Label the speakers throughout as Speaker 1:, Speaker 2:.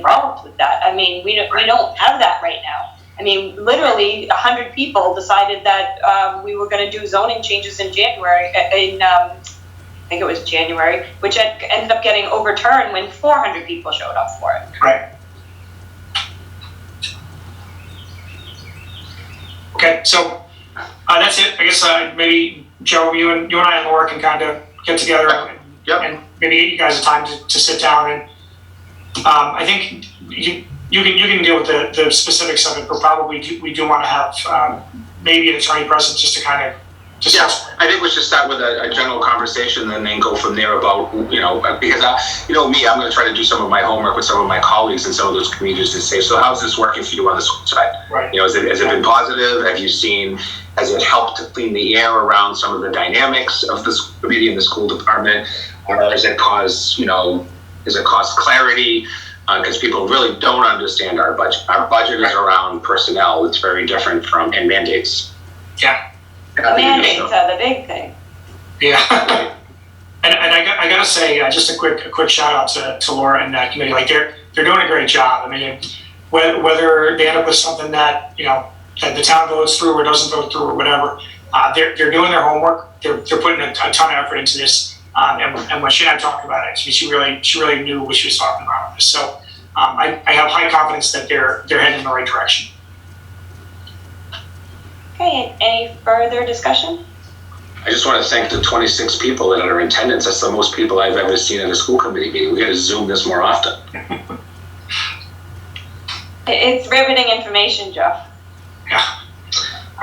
Speaker 1: problems with that. I mean, we don't, we don't have that right now. I mean, literally, a hundred people decided that, um, we were gonna do zoning changes in January, uh, in, um, I think it was January, which en- ended up getting overturned when four hundred people showed up for it.
Speaker 2: Right. Okay, so uh, that's it. I guess uh, maybe Joe, you and you and I and Laura can kind of get together and,
Speaker 3: Yep.
Speaker 2: and maybe get you guys a time to, to sit down and um, I think you you can you can deal with the, the specifics of it, but probably do, we do want to have um, maybe an attorney present just to kind of discuss.
Speaker 3: Yeah, I think we should start with a, a general conversation and then go from there about, you know, uh, because I, you know me, I'm gonna try to do some of my homework with some of my colleagues and some of those communities and say, so how's this working for you on the school side?
Speaker 2: Right.
Speaker 3: You know, has it, has it been positive? Have you seen, has it helped to clean the air around some of the dynamics of the school committee and the school department? Or has it caused, you know, has it caused clarity? because people really don't understand our budget. Our budget is around personnel. It's very different from, and mandates.
Speaker 2: Yeah.
Speaker 3: Uh,
Speaker 1: Mandates
Speaker 3: so-
Speaker 1: are the big thing.
Speaker 2: Yeah. And, and I, got- I gotta say, uh, just a quick a quick shout out to, to Laura and that committee. Like they're they're doing a great job. I mean, whether, whether they end up with something that you know that the town votes through or doesn't vote through or whatever, uh, they're they're doing their homework. They're, they're putting a, a ton of effort into this. Um, and, and when she and I talked about it, she, she really she really knew what she was talking about. with this. So um, I, I have high confidence that they're they're heading in the right direction.
Speaker 1: Okay, any further discussion?
Speaker 3: I just want to thank the 26 people that are in attendance. That's the most people I've ever seen at a school committee meeting. We got to Zoom this more often.
Speaker 1: I- It's riveting information, Jeff.
Speaker 2: Yeah.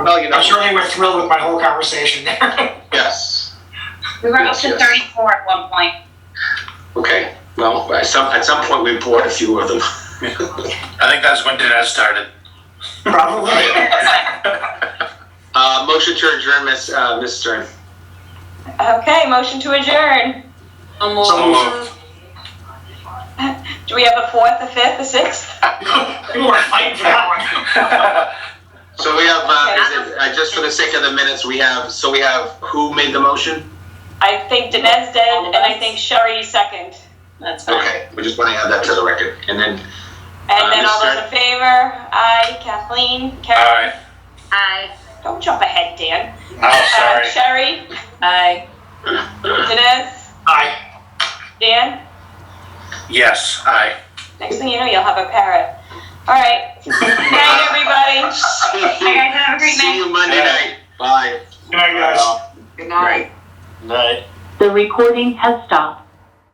Speaker 3: Well, you know-
Speaker 2: I'm sure they were thrilled with my whole conversation there.
Speaker 3: Yes.
Speaker 4: We were up
Speaker 3: Yes,
Speaker 4: to
Speaker 3: yes.
Speaker 4: thirty-four at one point.
Speaker 3: Okay. Well, at some at some point we poured a few of them.
Speaker 5: I think that's when Dinesh started.
Speaker 2: Probably.
Speaker 3: Uh, motion to adjourn, Miss uh, Miss Stern.
Speaker 1: Okay, motion to adjourn.
Speaker 5: So moved.
Speaker 1: Do we have a fourth, a fifth, a sixth?
Speaker 2: People were fighting for that one.
Speaker 3: So we have uh, is it, uh, just for the sake of the minutes, we have so we have who made the motion?
Speaker 1: I think Dinesh did, and I think Sherry second.
Speaker 4: That's fine.
Speaker 3: Okay. We just want to add that to the record, and then
Speaker 1: And then all those
Speaker 3: Understood.
Speaker 1: in favor? Aye, Kathleen,
Speaker 5: All
Speaker 1: Karen.
Speaker 5: right.
Speaker 4: Aye.
Speaker 1: Don't jump ahead, Dan.
Speaker 5: Oh,
Speaker 1: Uh,
Speaker 5: sorry.
Speaker 1: Sherry,
Speaker 4: Aye.
Speaker 1: Dinesh,
Speaker 2: Aye.
Speaker 1: Dan.
Speaker 5: Yes, aye.
Speaker 1: Next thing you know, you'll have a parrot. All right. Good night, everybody.
Speaker 3: see
Speaker 4: Hey,
Speaker 3: you,
Speaker 4: guys, have a great night.
Speaker 3: see you Monday night. Bye.
Speaker 2: Good night, guys.
Speaker 3: Bye.
Speaker 6: The recording has stopped.